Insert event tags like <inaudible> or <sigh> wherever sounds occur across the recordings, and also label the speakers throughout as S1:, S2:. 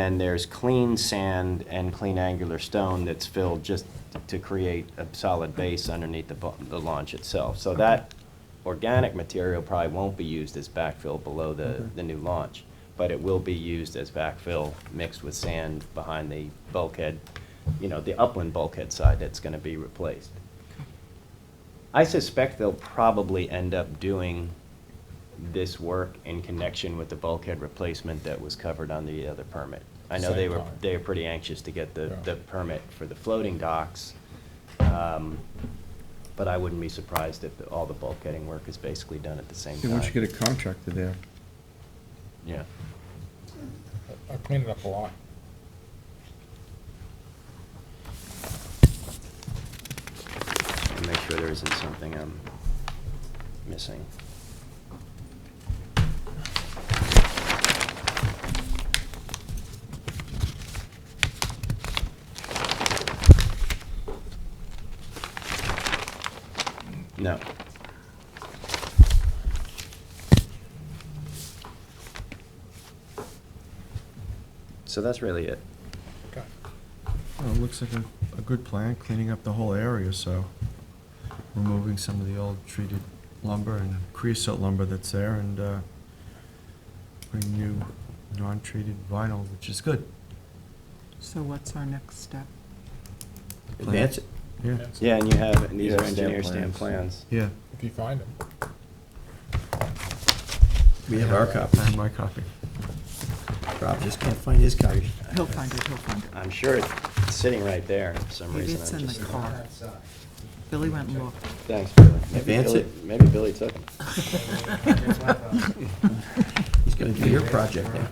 S1: And there's clean sand and clean angular stone that's filled just to create a solid base underneath the, bu- the launch itself. So that organic material probably won't be used as backfill below the, the new launch, but it will be used as backfill mixed with sand behind the bulkhead, you know, the upland bulkhead side that's gonna be replaced. I suspect they'll probably end up doing this work in connection with the bulkhead replacement that was covered on the other permit. I know they
S2: Same
S1: were,
S2: time.
S1: they were pretty anxious to get the,
S2: Yeah.
S1: the permit for the floating docks. um, But I wouldn't be surprised if all the bulkheading work is basically done at the same
S3: Yeah,
S1: time.
S3: we should get a contractor there.
S1: Yeah.
S2: I cleaned it up a lot.
S1: and make sure there isn't something I'm missing. No. So that's really it.
S2: Okay.
S3: Well, it looks like a, a good plan, cleaning up the whole area, so removing some of the old treated lumber and creosote lumber that's there and, uh, putting new non-treated vinyl, which is good.
S4: So what's our next step?
S1: That's it.
S3: Yeah,
S1: Yeah, and you have, and these
S5: Yeah,
S1: are
S5: stamp
S1: engineer stamp plans.
S5: plans.
S3: yeah.
S2: If you find them.
S5: We have our copy.
S3: I have my copy.
S5: Rob just can't find his copy.
S4: He'll find it, he'll find it.
S1: I'm sure it's sitting right there for some
S4: Maybe
S1: reason.
S4: it's
S1: I'm
S4: in the
S1: just-
S4: car. Billy went and looked.
S1: Thanks,
S4: <laughs>
S1: Billy. Maybe
S5: Advance
S1: Billy-
S5: it.
S1: Maybe Billy took them.
S5: He's gonna do your project now.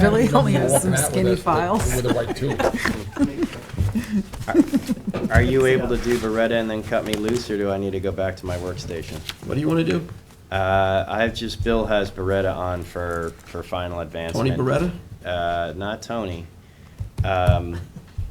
S4: Billy only has
S2: Walking
S4: some
S2: out with
S4: skinny
S2: us with-
S4: files.
S2: With a white tube.
S1: Are you able to do Beretta and then cut me loose, or do I need to go back to my workstation?
S5: What do you wanna do?
S1: Uh, I've just, Bill has Beretta on for, for final advancement.
S5: Tony Beretta?
S1: Uh, not Tony. Um,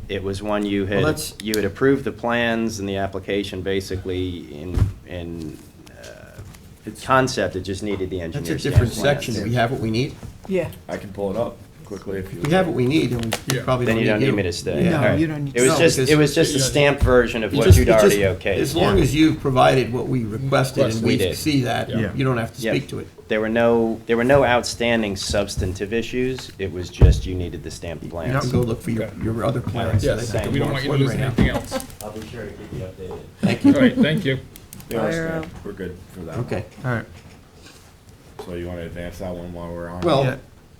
S1: It was one you
S5: Well,
S1: had,
S5: that's-
S1: you had approved the plans and the application basically in, in uh, concept, it just needed the
S5: That's a
S1: engineer's stamp
S5: different
S1: plans.
S5: section. Do we have what we need?
S4: Yeah.
S6: I can pull it up quickly if you.
S5: We have what we need, and we
S2: Yeah.
S5: probably
S1: Then
S5: don't need
S1: you
S5: you.
S1: don't need me to stay.
S5: Yeah.
S4: No,
S1: All right.
S4: you don't need
S1: It was
S5: to-
S1: just, it
S5: No,
S1: was just a
S2: because-
S1: stamped version of
S5: It
S1: what
S5: just-
S1: you'd
S5: it just-
S1: already okayed.
S5: As long
S1: Yeah.
S5: as you've provided what we requested and
S2: Requested.
S1: We
S5: we
S1: did.
S5: see that,
S3: Yeah.
S5: you don't have to
S1: Yeah.
S5: speak to it.
S1: There were no, there were no outstanding substantive issues, it was just you needed the stamped
S5: You don't
S1: plans.
S5: go look for your,
S2: Okay.
S5: your other plans.
S1: Yeah,
S2: Yes,
S1: Thank
S2: we don't want you to lose anything else.
S1: I'll be sure to keep you updated.
S5: Thank
S2: All
S5: you.
S2: right, thank you.
S6: Yeah,
S4: Fire
S6: stamp.
S4: up.
S6: We're good for that.
S5: Okay.
S3: All right.
S6: one. So you want to advance that one while we're on?
S1: Oh.
S5: Well,
S3: Yeah.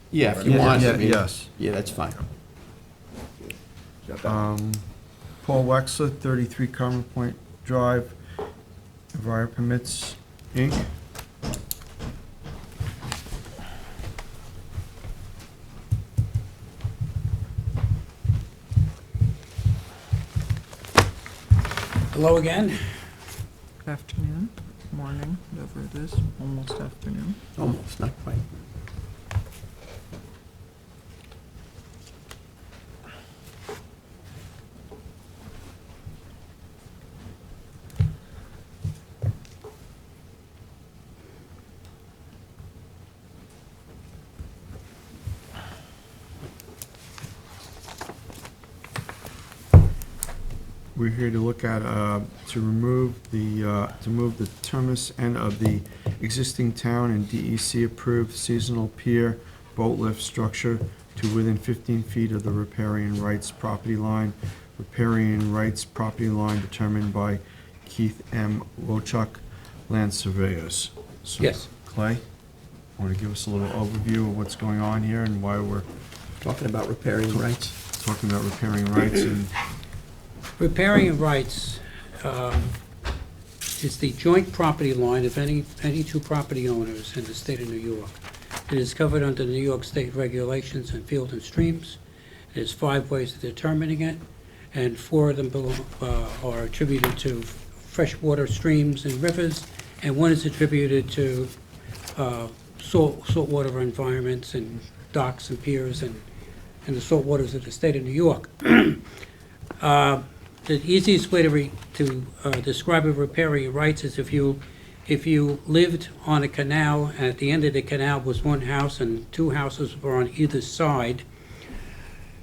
S5: yeah, if you
S6: Yeah,
S5: want. I
S3: yeah,
S5: mean,
S3: yes.
S5: Yeah, that's fine.
S6: Is that that?
S3: Um, Paul Wexler, 33 Common Point Drive, Enviro Permits, Inc.
S7: Hello again.
S4: Afternoon, morning, whatever it is, almost afternoon.
S5: Almost, not quite.
S3: We're here to look at, uh, to remove the, uh, to move the terminus end of the existing town and DEC-approved seasonal pier boat lift structure to within 15 feet of the riparian rights property line. Riparian rights property line determined by Keith M. Wochuk, land surveyors. So,
S5: Yes.
S3: Clay, want to give us a little overview of what's going on here and why we're
S5: Talking about repairing rights.
S3: talking about riparian rights and
S7: Riparian rights um, is the joint property line of any, any two property owners in the state of New York. It is covered under New York State regulations and field and streams. There's five ways of determining it, and four of them belo- uh, are attributed to freshwater streams and rivers, and one is attributed to uh, salt, saltwater environments and docks and piers and, and the saltwaters of the state of New York. Uh, The easiest way to re, to uh, describe a riparian rights is if you, if you lived on a canal, and at the end of the canal was one house and two houses were on either side,